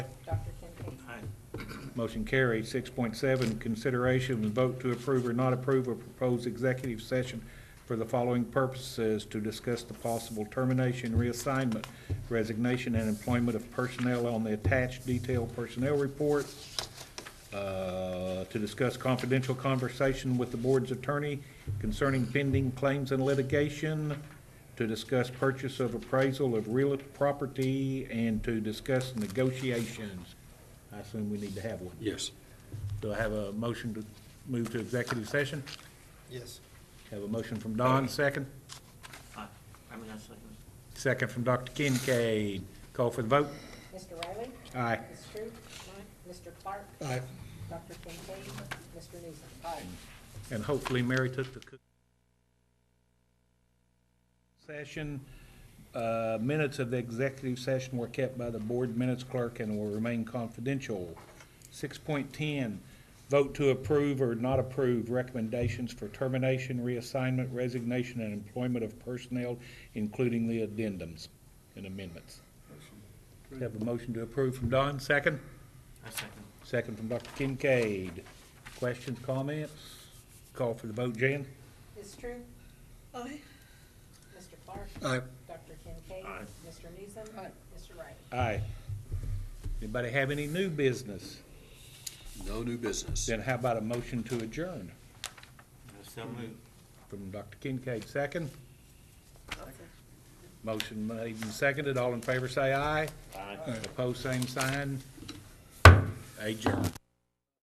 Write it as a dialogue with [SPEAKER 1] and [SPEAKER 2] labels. [SPEAKER 1] Motion carried. Six point seven, consideration and vote to approve or not approve a proposed executive session for the following purposes to discuss the possible termination, reassignment, resignation, and employment of personnel on the attached detailed personnel report, uh, to discuss confidential conversation with the board's attorney concerning pending claims and litigation, to discuss purchase of appraisal of real property, and to discuss negotiations. I assume we need to have one.
[SPEAKER 2] Yes.
[SPEAKER 1] Do I have a motion to move to executive session?
[SPEAKER 3] Yes.
[SPEAKER 1] Have a motion from Don, second.
[SPEAKER 4] Aye. I mean, I second.
[SPEAKER 1] Second from Dr. Kincaid. Call for the vote.
[SPEAKER 5] Mr. Riley?
[SPEAKER 1] Aye.
[SPEAKER 5] Ms. Stroup? Mr. Clark?
[SPEAKER 3] Aye.
[SPEAKER 5] Dr. Kincaid? Mr. Newsom?
[SPEAKER 1] And hopefully Mary took the cook. Session, uh, minutes of the executive session were kept by the board minutes clerk and will remain confidential. Six point ten, vote to approve or not approve recommendations for termination, reassignment, resignation, and employment of personnel, including the addendums and amendments. Have a motion to approve from Don, second?
[SPEAKER 4] I second.
[SPEAKER 1] Second from Dr. Kincaid. Questions, comments? Call for the vote, Jan?
[SPEAKER 5] Ms. Stroup?
[SPEAKER 6] Aye.
[SPEAKER 5] Mr. Clark?
[SPEAKER 3] Aye.
[SPEAKER 5] Dr. Kincaid?
[SPEAKER 4] Aye.
[SPEAKER 5] Mr. Newsom? Mr. Riley?
[SPEAKER 1] Aye. Anybody have any new business?
[SPEAKER 2] No new business.
[SPEAKER 1] Then how about a motion to adjourn
[SPEAKER 4] I so move.
[SPEAKER 1] from Dr. Kincaid, second? Motion made and seconded. All in favor, say aye.
[SPEAKER 4] Aye.
[SPEAKER 1] Opposed, same sign. Adjourn.